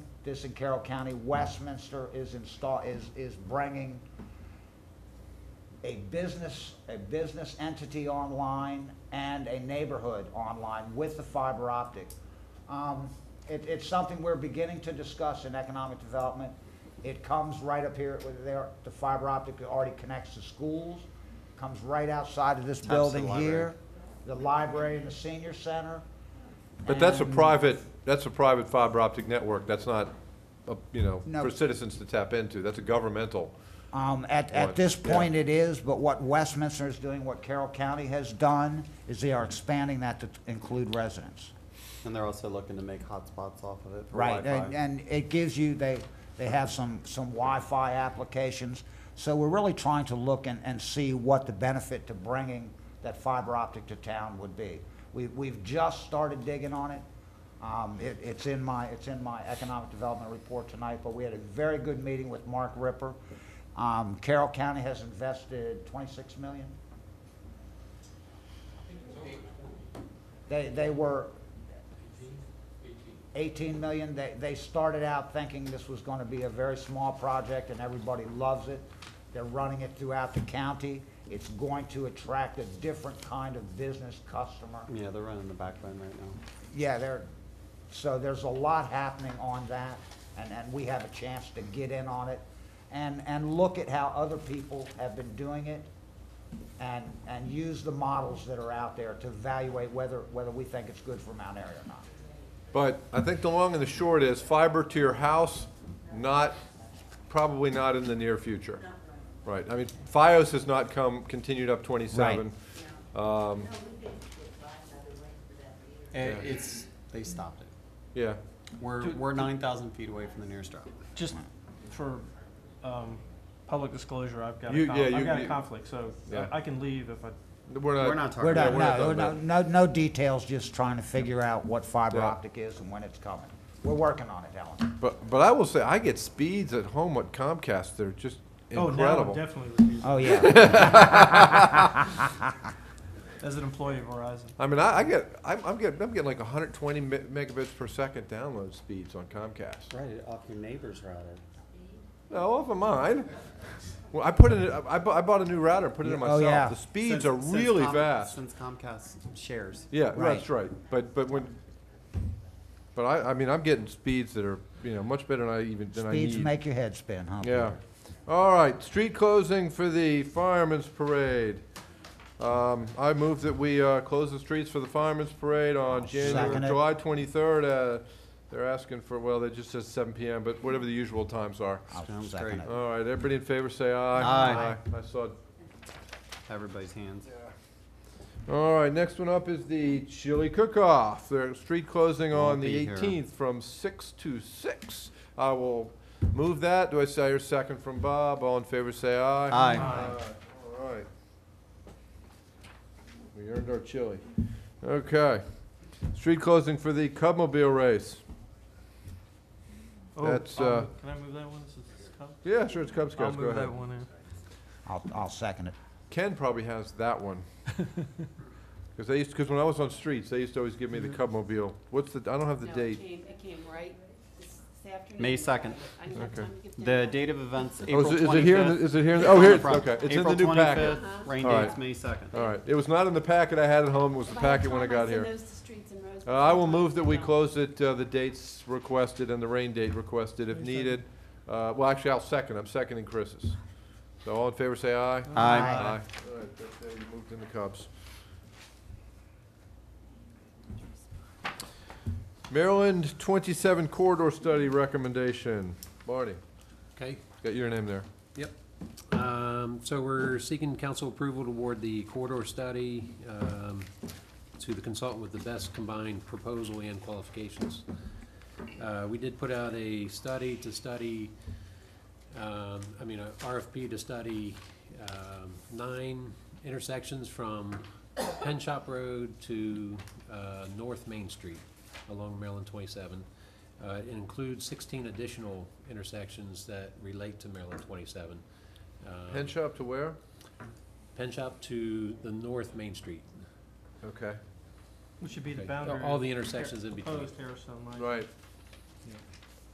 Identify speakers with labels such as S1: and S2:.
S1: this in Carroll County. Westminster is install, is, is bringing a business, a business entity online and a neighborhood online with the fiber optic. Um, it, it's something we're beginning to discuss in economic development. It comes right up here, with there, the fiber optic already connects to schools, comes right outside of this
S2: the
S1: building
S2: library.
S1: here, the library and the senior center.
S3: But that's a
S1: And-
S3: private, that's a private fiber optic network, that's not, uh, you know,
S1: No.
S3: for citizens to tap into, that's a governmental.
S1: Um, at,
S3: Right,
S1: at this
S3: yeah.
S1: point it is, but what Westminster is doing, what Carroll County has done, is they are expanding that to t- include residents.
S2: And they're also looking to make hotspots off of it for
S1: Right, and,
S2: Wi-Fi.
S1: and it gives you, they, they have some, some Wi-Fi applications. So we're really trying to look and, and see what the benefit to bringing that fiber optic to town would be. We, we've just started digging on it. Um, it, it's in my, it's in my economic development report tonight, but we had a very good meeting with Mark Ripper. Um, Carroll County has invested twenty-six million. They, they were, 18 million, they, they started out thinking this was going to be a very small project, and everybody loves it. They're running it throughout the county. It's going to attract a different kind of business customer.
S2: Yeah, they're running the backbone right now.
S1: Yeah, there, so there's a lot happening on that, and, and we have a chance to get in on it and, and look at how other people have been doing it and, and use the models that are out there to evaluate whether, whether we think it's good for Mount Airy or not.
S3: But I think the long and the short is fiber to your house, not, probably not in the near future. Right, I mean, FiOS has not come, continued up twenty-seven. Um,
S2: It- Eh, It's, they stopped it.
S3: yeah,
S2: We're, we're nine thousand feet away from the nearest drop.
S4: Just for um, public disclosure, I've got
S3: You-
S4: a con-
S3: yeah, you-
S4: I've got
S3: you-
S4: a conflict, so I-
S3: Yeah.
S4: I can leave if I, oh,
S3: we're not.
S2: We're not talking
S1: We're
S2: about
S1: not,
S3: Yeah, we're not
S1: no,
S3: talking
S1: no, no, no details, just trying to figure out what fiber
S3: Yeah.
S1: optic is and when it's coming. We're working on it, Alan.
S3: But, but I will say, I get speeds at home at Comcast, they're just
S4: oh, now I'm
S3: incredible.
S4: definitely refusing.
S1: Oh, yeah.
S4: As an employee of Verizon,
S3: I mean, I, I get, I'm, I'm getting, I'm getting like hundred twenty megabits per second download speeds on Comcast.
S2: Right, off your neighbor's router.
S3: No, off of mine. Well, I put it. in- I, bu- I bought a new router and put it in
S1: Yeah, oh,
S3: myself.
S1: yeah.
S3: The speeds
S2: Since-
S3: are
S2: since
S3: really
S2: Com-
S3: fast.
S2: Since Comcast shares.
S3: Yeah,
S1: Right.
S3: that's right. But but when, but I, I mean I'm getting speeds that are you know much better than I even than I
S1: Speeds
S3: need.
S1: make your head spin, huh?
S3: yeah. All right. Street closing for the firemen's parade. Um, I move that we uh, close the streets for the firemen's parade on January,
S1: Second it.
S3: July 23rd. Uh, they're asking for well, they just says 7 p.m. But whatever the usual times are.
S1: I'll
S2: Sounds
S1: second
S2: great.
S1: it.
S3: All right, everybody in favor say aye.
S2: Aye.
S3: I saw.
S2: Everybody's hands.
S3: All right, next one up is the chili cook-off. They're street closing on
S2: Won't
S3: the
S2: be here.
S3: 18th from 6 to 6. I will move that. Do I say your second from Bob? All in favor say aye.
S2: Aye.
S3: Aye. All right. We earned our chili. Okay. Street closing for the Cubmobile race.
S4: oh,
S3: That's,
S4: I'll
S3: uh,
S4: move- can I move that one? since it's Cub?
S3: Yeah, sure, it's Cub
S4: I'll
S3: Scouts. Go
S4: move
S3: ahead.
S4: that one in.
S1: I'll, I'll second it.
S3: Ken probably has that one. Because they used, because when I was on streets, they used to always give me the Cubmobile. What's the, I don't have the
S5: No, it
S3: date.
S5: came- It came right this this afternoon.
S2: May 2nd.
S5: I didn't have
S3: Okay.
S5: time to get
S2: The
S5: down.
S2: date of events,
S3: Oh,
S2: April
S3: is it-
S2: twenty-fifth.
S3: is it here? in the- Is it here? in the- Oh, here, it- okay, it's in the new
S2: April
S3: packet.
S2: twenty-fifth, rain
S3: All
S2: date's
S3: right.
S2: May second.
S3: All right, it was not in the packet I had at home, it was the
S5: By
S3: packet when I
S5: time
S3: got
S5: send
S3: here.
S5: those to streets and roads,
S3: Uh, I will move that we
S5: No.
S3: close it, uh, the dates requested and the rain date requested if needed. Uh, well, actually, I'll second, I'm seconding Chris's. So all in favor, say aye.
S1: Aye.
S3: All right, that- that we moved in the Cubs. Maryland twenty-seven corridor study recommendation. Barney,
S6: Okay,
S3: got your name there.
S6: yep. Um, So we're seeking council approval to award the corridor study um, to the consultant with the best combined proposal and qualifications. Uh, We did put out a study to study, um, I mean, a RFP to study um, nine intersections from Penn Shop Road to uh, North Main Street along Maryland 27. Uh, It includes 16 additional intersections that relate to Maryland 27. Um,
S3: Pen shop to where?
S6: Penn Shop to the North Main Street.
S3: Okay.
S4: It should be the
S6: Okay.
S4: boundary.
S6: All
S4: of
S6: the intersections in between.
S4: Proposed Harrison Lane.
S3: Right,